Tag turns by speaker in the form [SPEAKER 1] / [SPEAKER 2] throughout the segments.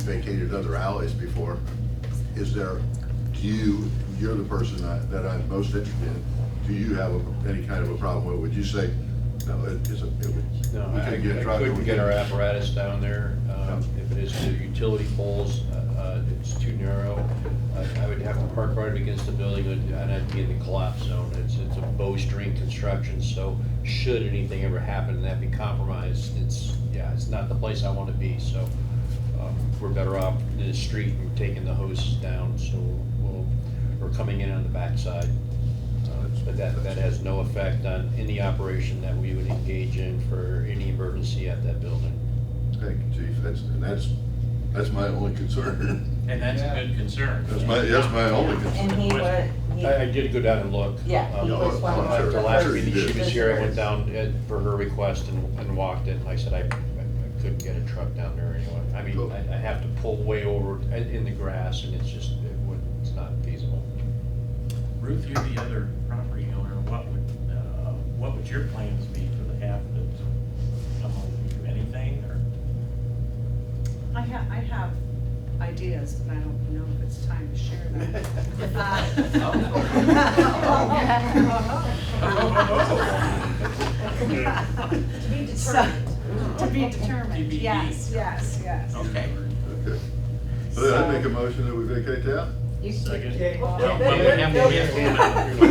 [SPEAKER 1] vacated other alleys before. Is there, do you, you're the person I- that I'm most interested in, do you have a- any kind of a problem with, it? would you say, no, it is a, it would,
[SPEAKER 2] No,
[SPEAKER 1] we
[SPEAKER 2] I I
[SPEAKER 1] could get a truck. or we
[SPEAKER 2] couldn't get
[SPEAKER 1] could-"
[SPEAKER 2] our apparatus down there. Um, If it is to utility poles, uh, uh, it's too narrow. I- I would have to park right against the building and and I'd be in the collapse zone. It's, it's a bowstring construction, so should anything ever happen and that be compromised, it's, yeah, it's not the place I want to be. So um, we're better off in the street and taking the hoses down, so we'll, we're coming in on the backside. Uh, But that, that has no effect on any operation that we would engage in for any emergency at that building.
[SPEAKER 1] Thank you, chief, that's, and that's, that's my only concern.
[SPEAKER 3] And that's a good concern.
[SPEAKER 1] That's my, that's my only concern.
[SPEAKER 4] And he was, he,
[SPEAKER 2] I, I did go down and look.
[SPEAKER 4] Yeah, he
[SPEAKER 2] Um,
[SPEAKER 4] was one of
[SPEAKER 2] After
[SPEAKER 1] the
[SPEAKER 2] last
[SPEAKER 1] first.
[SPEAKER 2] meeting, she was here, I went
[SPEAKER 4] visitors.
[SPEAKER 2] down uh, for her request and, and walked it, and I said I, I couldn't get a truck down there anyway. I mean, I, I have to pull way over in- in the grass, and it's just, it would, it's not feasible.
[SPEAKER 3] Ruth, you're the other property owner, what would, uh, what would your plans be for the half that's come over, anything, or?
[SPEAKER 5] I have, I have ideas, but I don't know if it's time to share them.
[SPEAKER 6] Oh.
[SPEAKER 5] Uh,
[SPEAKER 4] to be
[SPEAKER 5] So,
[SPEAKER 4] determined.
[SPEAKER 5] To be determined,
[SPEAKER 3] TBD.
[SPEAKER 5] yes, yes, yes.
[SPEAKER 3] Okay.
[SPEAKER 1] Okay. Well, then I make a motion that we vacate that?
[SPEAKER 4] You should-
[SPEAKER 3] Second.
[SPEAKER 4] Well,
[SPEAKER 3] Well, but we have to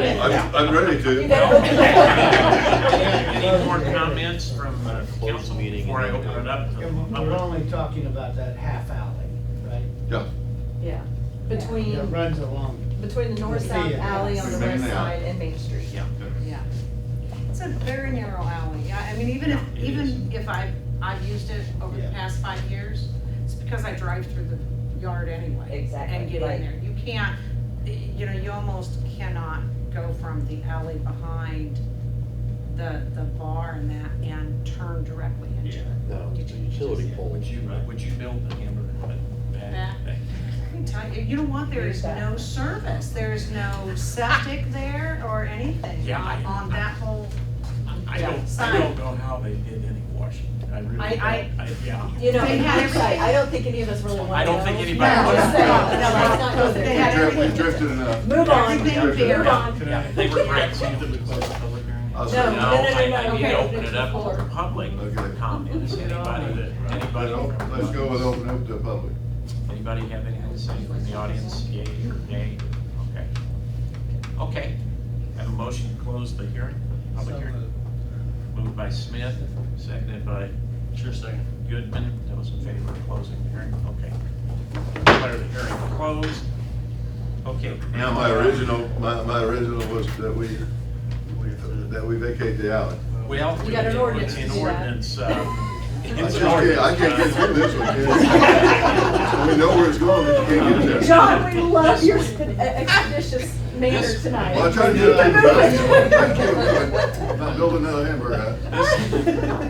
[SPEAKER 3] get
[SPEAKER 1] I'm, I'm ready to.
[SPEAKER 4] You
[SPEAKER 3] Any
[SPEAKER 4] better-
[SPEAKER 3] any more comments from uh,
[SPEAKER 2] Close
[SPEAKER 3] council
[SPEAKER 2] meeting
[SPEAKER 3] before I
[SPEAKER 2] and then-
[SPEAKER 3] open it up? to the
[SPEAKER 7] And we- we're
[SPEAKER 3] public?
[SPEAKER 7] only talking about that half alley, right?
[SPEAKER 1] Yeah,
[SPEAKER 6] Yeah,
[SPEAKER 7] That
[SPEAKER 6] between,
[SPEAKER 7] runs along.
[SPEAKER 6] between the north-south
[SPEAKER 7] Yeah.
[SPEAKER 6] alley on the
[SPEAKER 1] Main
[SPEAKER 6] west
[SPEAKER 1] alley.
[SPEAKER 6] side and Main Street.
[SPEAKER 3] Yeah.
[SPEAKER 5] Yeah. It's a very narrow alley. Yeah, I mean, even if,
[SPEAKER 3] Yeah, it
[SPEAKER 5] even if I, I've used it over the
[SPEAKER 7] Yeah.
[SPEAKER 5] past five years, it's because I drive through the yard anyway.
[SPEAKER 4] Exactly,
[SPEAKER 5] And get
[SPEAKER 4] right.
[SPEAKER 5] in there. You can't, you know, you almost cannot go from the alley behind the, the bar and that and turn directly into
[SPEAKER 3] Yeah.
[SPEAKER 5] it.
[SPEAKER 2] No, it's a utility pole.
[SPEAKER 3] Would you, would you build the hamburger back?
[SPEAKER 5] Back. I can tell you, you know what, there is no service, there is no septic there or anything
[SPEAKER 3] Yeah, I-
[SPEAKER 5] on, on that whole, Um,
[SPEAKER 3] I don't, I don't know how they did any washing, I really don't.
[SPEAKER 5] I- I-
[SPEAKER 3] Yeah.
[SPEAKER 6] You know,
[SPEAKER 5] They
[SPEAKER 6] in
[SPEAKER 5] had
[SPEAKER 6] hindsight,
[SPEAKER 5] everything.
[SPEAKER 6] I don't think any of us really want to.
[SPEAKER 3] I don't think
[SPEAKER 6] know.
[SPEAKER 3] anybody
[SPEAKER 6] No,
[SPEAKER 3] wants to
[SPEAKER 6] just saying.
[SPEAKER 3] know.
[SPEAKER 6] No, let's not go there.
[SPEAKER 5] They had
[SPEAKER 1] You drifted-
[SPEAKER 5] everything.
[SPEAKER 1] you drifted enough.
[SPEAKER 6] Move on.
[SPEAKER 1] You drifted
[SPEAKER 5] They're
[SPEAKER 1] enough.
[SPEAKER 5] on.
[SPEAKER 3] Yeah, They were great. So did we close the public hearing?
[SPEAKER 1] I'll
[SPEAKER 3] No,
[SPEAKER 1] say- No,
[SPEAKER 6] no,
[SPEAKER 3] I-
[SPEAKER 6] no, no,
[SPEAKER 3] I
[SPEAKER 6] no,
[SPEAKER 3] need to
[SPEAKER 6] okay,
[SPEAKER 3] open it up to the
[SPEAKER 6] before.
[SPEAKER 3] public for
[SPEAKER 1] Okay.
[SPEAKER 3] comments, anybody that,
[SPEAKER 1] But
[SPEAKER 3] anybody.
[SPEAKER 1] don't- let's go with open up to the public.
[SPEAKER 3] Anybody have anything to say from the audience, yay or nay? Okay. Okay, have a motion to close the hearing, public hearing. Moved by Smith, seconded by. Sure second. Goodman, those in favor of closing the hearing, okay. Declare the hearing closed. Okay.
[SPEAKER 1] Now, my original, my, my original was that we, that we vacate the alley.
[SPEAKER 3] Well.
[SPEAKER 6] You got an ordinance to
[SPEAKER 3] An
[SPEAKER 6] do that.
[SPEAKER 3] ordinance, uh.
[SPEAKER 1] I
[SPEAKER 3] it's
[SPEAKER 1] just
[SPEAKER 3] an
[SPEAKER 1] can't, I can't get
[SPEAKER 3] ordinance, uh,
[SPEAKER 1] through this one, kid. We know where it's going, but you can't get there.
[SPEAKER 6] John, we love your sp- expeditious manner
[SPEAKER 3] This-
[SPEAKER 6] tonight.
[SPEAKER 1] Well, I try to do that. I can't do it. I'm not building another hamburger.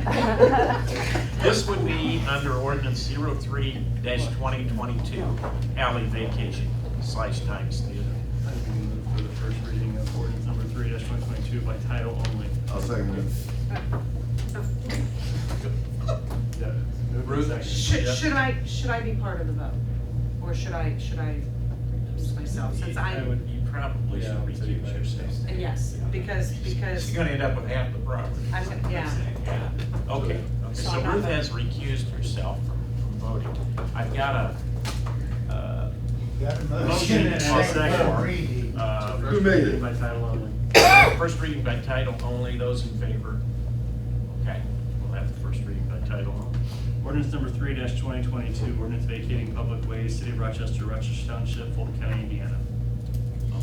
[SPEAKER 1] hut.
[SPEAKER 3] This would be under ordinance 03-2022, alley vacation slash times theater.
[SPEAKER 8] I would move for the first reading of ordinance number three twenty twenty-two by title only.
[SPEAKER 1] I'll second it.
[SPEAKER 5] uh,
[SPEAKER 8] Yeah. Move
[SPEAKER 3] Ruth?
[SPEAKER 8] second.
[SPEAKER 5] Should,
[SPEAKER 8] Yeah.
[SPEAKER 5] should I, should I be part of the vote? Or should I, should I recuse myself, since I,
[SPEAKER 8] would-
[SPEAKER 3] You probably
[SPEAKER 8] Yeah, I
[SPEAKER 3] should
[SPEAKER 8] would say
[SPEAKER 3] recuse
[SPEAKER 8] that.
[SPEAKER 3] yourself.
[SPEAKER 5] yes, because, because,
[SPEAKER 3] She's gonna end up with half the property.
[SPEAKER 5] I'm gonna- yeah.
[SPEAKER 3] Yeah. Okay, okay,
[SPEAKER 5] So
[SPEAKER 3] so
[SPEAKER 5] I'm not
[SPEAKER 3] Ruth
[SPEAKER 5] voting.
[SPEAKER 3] has recused herself from from voting. I've got a, uh,
[SPEAKER 7] Got a
[SPEAKER 3] Motion
[SPEAKER 7] motion
[SPEAKER 3] and
[SPEAKER 7] and
[SPEAKER 3] a
[SPEAKER 7] a
[SPEAKER 3] second.
[SPEAKER 7] second reading.
[SPEAKER 3] uh,
[SPEAKER 1] Who made it?
[SPEAKER 8] By title only.
[SPEAKER 3] First reading by title only, those in favor? Okay, we'll have the first reading by title only.
[SPEAKER 8] Ordinance number three twenty twenty-two, ordinance vacating public ways, city of Rochester, Rochester Township, Fulton County, Indiana.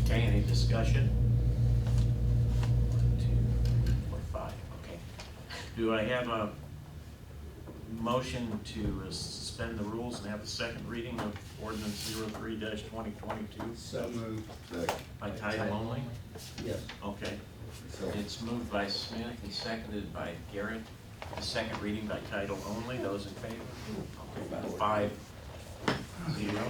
[SPEAKER 3] Okay, any discussion? One, two, three, four, five, okay. Do I have a motion to uh, suspend the rules and have a second reading of ordinance 3 twenty twenty-two
[SPEAKER 7] So moved.
[SPEAKER 1] Second.
[SPEAKER 3] by title only?
[SPEAKER 7] Yes.
[SPEAKER 3] Okay. It's moved by Smith and seconded by Garrett. The second reading by title only, those in favor? Okay, Five, zero,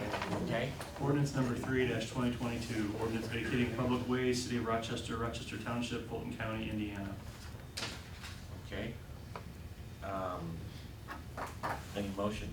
[SPEAKER 3] okay?
[SPEAKER 8] Ordinance number three twenty twenty-two, ordinance vacating public ways, city of Rochester, Rochester Township, Fulton County, Indiana.
[SPEAKER 3] Okay. Um, Any motion?